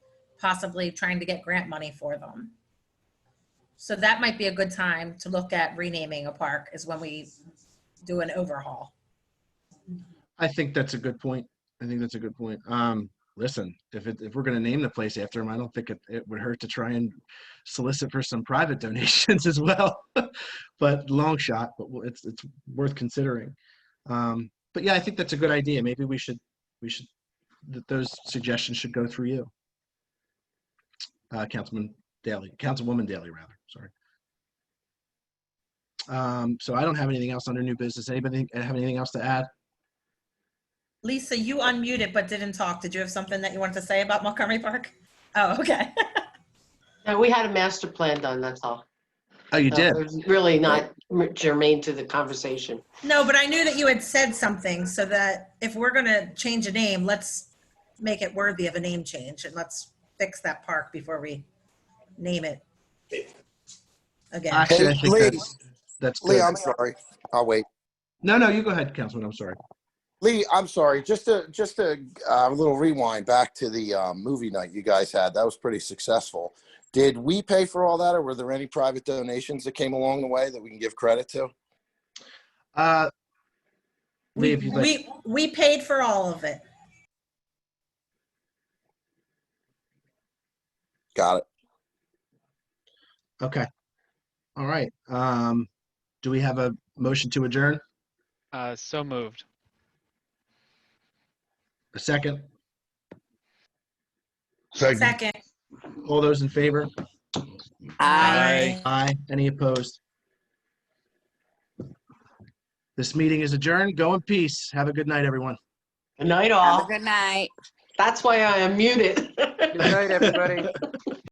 possibly trying to get grant money for them. So that might be a good time to look at renaming a park is when we do an overhaul. I think that's a good point. I think that's a good point. Um, listen, if it, if we're gonna name the place after him, I don't think it, it would hurt to try and solicit for some private donations as well. but long shot, but we'll- it's it's worth considering. Um, but yeah, I think that's a good idea. Maybe we should we should that those suggestions should go through you, uh, Councilman Daly, Councilwoman Daly, rather. Sorry. Um, so I don't have anything else under new business. Anybody have anything else to add? Lisa, you unmuted but didn't talk. Did you have something that you wanted to say about Montgomery Park? Oh, okay. No, we had a master plan done, that's all. Oh, you So did. There's really not germane to the conversation. No, but I knew that you had said something so that if we're gonna change a name, let's make it worthy of a name change and let's fix that park before we name it. Again, Actually, I Hey, think Lee. that's, that's Lee, good. I'm sorry. I'll wait. No, no, you go ahead, Councilman. I'm sorry. Lee, I'm sorry. Just a just a uh, little rewind back to the um, movie night you guys had. That was pretty successful. Did we pay for all that, or were there any private donations that came along the way that we can give credit to? Uh, Lee, we, if you'd like, we, we paid for all of it. Got it. okay. All right. Um, do we have a motion to adjourn? Uh, so moved. A second? Second. All those in favor? Aye. Aye. Any opposed? This meeting is adjourned. Go in peace. Have a good night, everyone. Good night, Have a all. good night. That's why I am muted. Good night, everybody.